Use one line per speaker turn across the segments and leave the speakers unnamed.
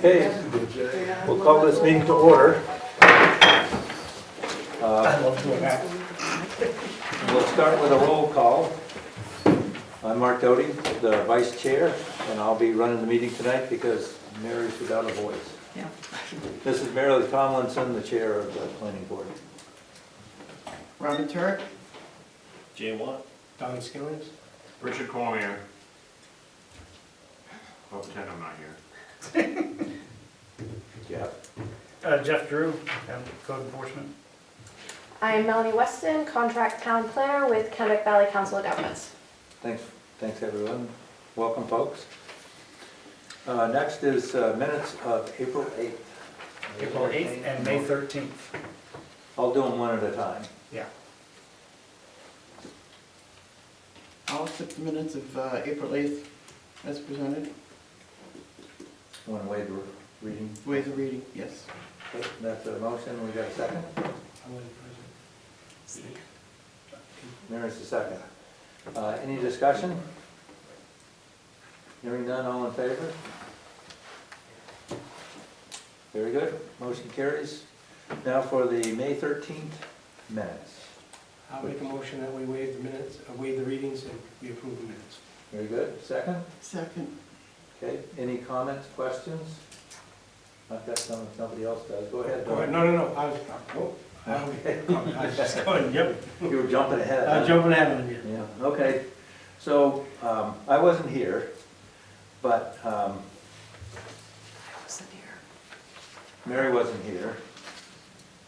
Okay, we'll call this meeting to order. Uh, We'll start with a roll call. I'm Mark Doty, the vice chair, and I'll be running the meeting tonight because Mary's without a voice.
Yeah.
This is Mary Lee Tomlinson, the chair of the planning board.
Robin Turk,
Jay Watt.
Don Skillings?
Richard Cormier. I'll pretend I'm not here.
Yeah.
Uh, Jeff Drew, um, code enforcement.
I am Melanie Weston, contract town planner with Kennebec Valley Council of Governments.
Thanks, thanks everyone. Welcome, folks. Uh, Next is uh, minutes of April 8th.
April 8th and May 13th.
I'll do them one at a time.
Yeah.
I'll accept the minutes of uh, April 8th as presented,
One way to reading.
ways of reading, yes.
Okay, That's a motion, we got a second? Mary's the second. Uh, Any discussion? Hearing none, all in favor? Very good, motion carries. Now for the May 13th minutes.
I'll make a motion that we waive the minutes, uh, waive the readings and we approve the minutes.
Very good, second?
Second,
Okay, any comments, questions? I've got some, if nobody else does, go ahead.
All right,
Doug.
No, no, no, I was, oh, I was- I was just going, yep,
You were jumping ahead. huh?
I'm jumping ahead on you.
Yeah, okay. So, um, I wasn't here, but, um, Mary wasn't here.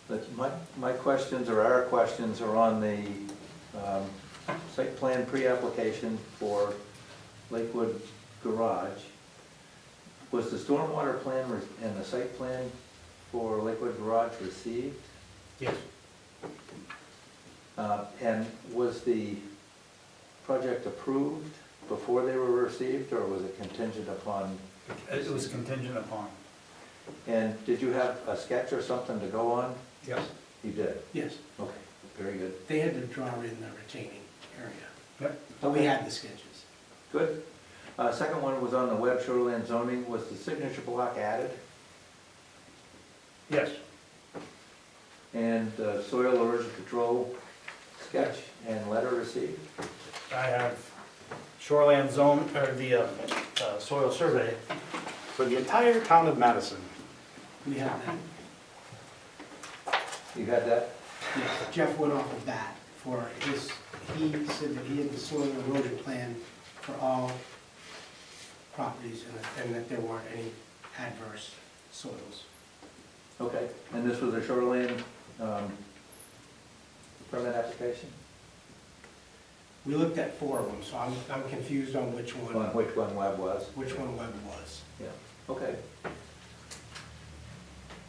But my, my questions or our questions are on the, um, site plan pre-application for Lakewood Garage. Was the stormwater plan re- and the site plan for Lakewood Garage received?
Yes.
Uh, And was the project approved before they were received, or was it contingent upon?
It was contingent upon.
And did you have a sketch or something to go on?
Yes.
You did?
Yes,
Okay, very good.
they had to draw in the retaining area,
Yep.
but we had the sketches.
Good. Uh, Second one was on the web shoreline zoning. Was the signature block added?
Yes.
And the soil erosion control sketch and letter received?
I have shoreland zone, or the uh, uh, soil survey for the entire town of Madison.
We had that.
You had that?
Yes, Jeff went off of that for his, he said that he had the soil erosion plan for all properties and that- and that there weren't any adverse soils.
Okay, and this was a shoreline um, permit application?
We looked at four of them, so I'm, I'm confused on which
On
one,
which one web was?
which one Webb was.
Yeah, okay.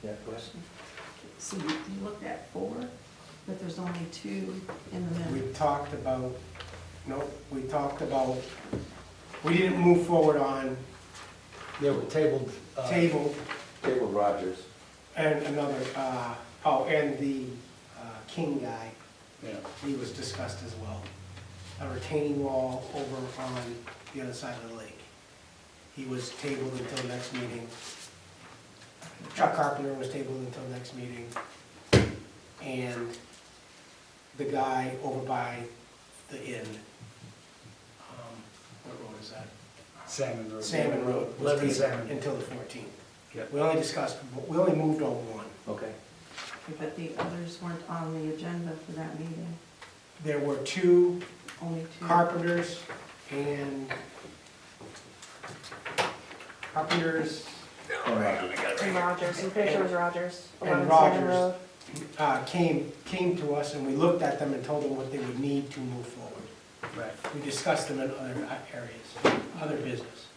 Yeah, question?
So you you looked at four, but there's only two in the
We
middle.
talked about, no, we talked about, we didn't move forward on
They were tabled. uh,
table
Cable Rogers.
and another, uh, oh, and the uh, King guy.
Yeah.
he was discussed as well. A retaining wall over on the other side of the lake. He was tabled until next meeting. Chuck Carpenter was tabled until next meeting. And the guy over by the inn, um, what road is that?
Salmon Road.
Salmon Road. was
Levin
tabled
Salmon.
Until the fourteenth.
Yep.
We only discussed, we only moved on one.
Okay,
But the others weren't on the agenda for that meeting,
There were two
only two.
carpenters and carpenters,
and Rogers.
And Rogers, I'm pretty sure it was Rogers.
And
11 Salmon
Rogers.
Road.
uh, came, came to us and we looked at them and told them what they would need to move forward.
Right.
We discussed them in other areas, other business.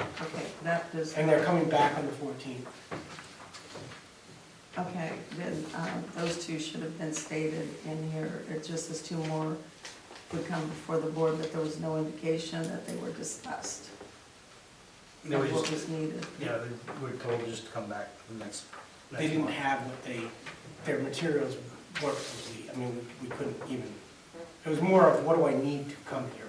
Okay, that does,
And they're coming back on the fourteenth.
okay, then um, those two should have been stated in here. It just as two more would come before the board, but there was no indication that they were discussed.
They were
of What
just-
was needed.
Yeah, they were told just to come back for the next. next
They didn't
month.
have what they, their materials were complete. I mean, we- we couldn't even, it was more of what do I need to come here with?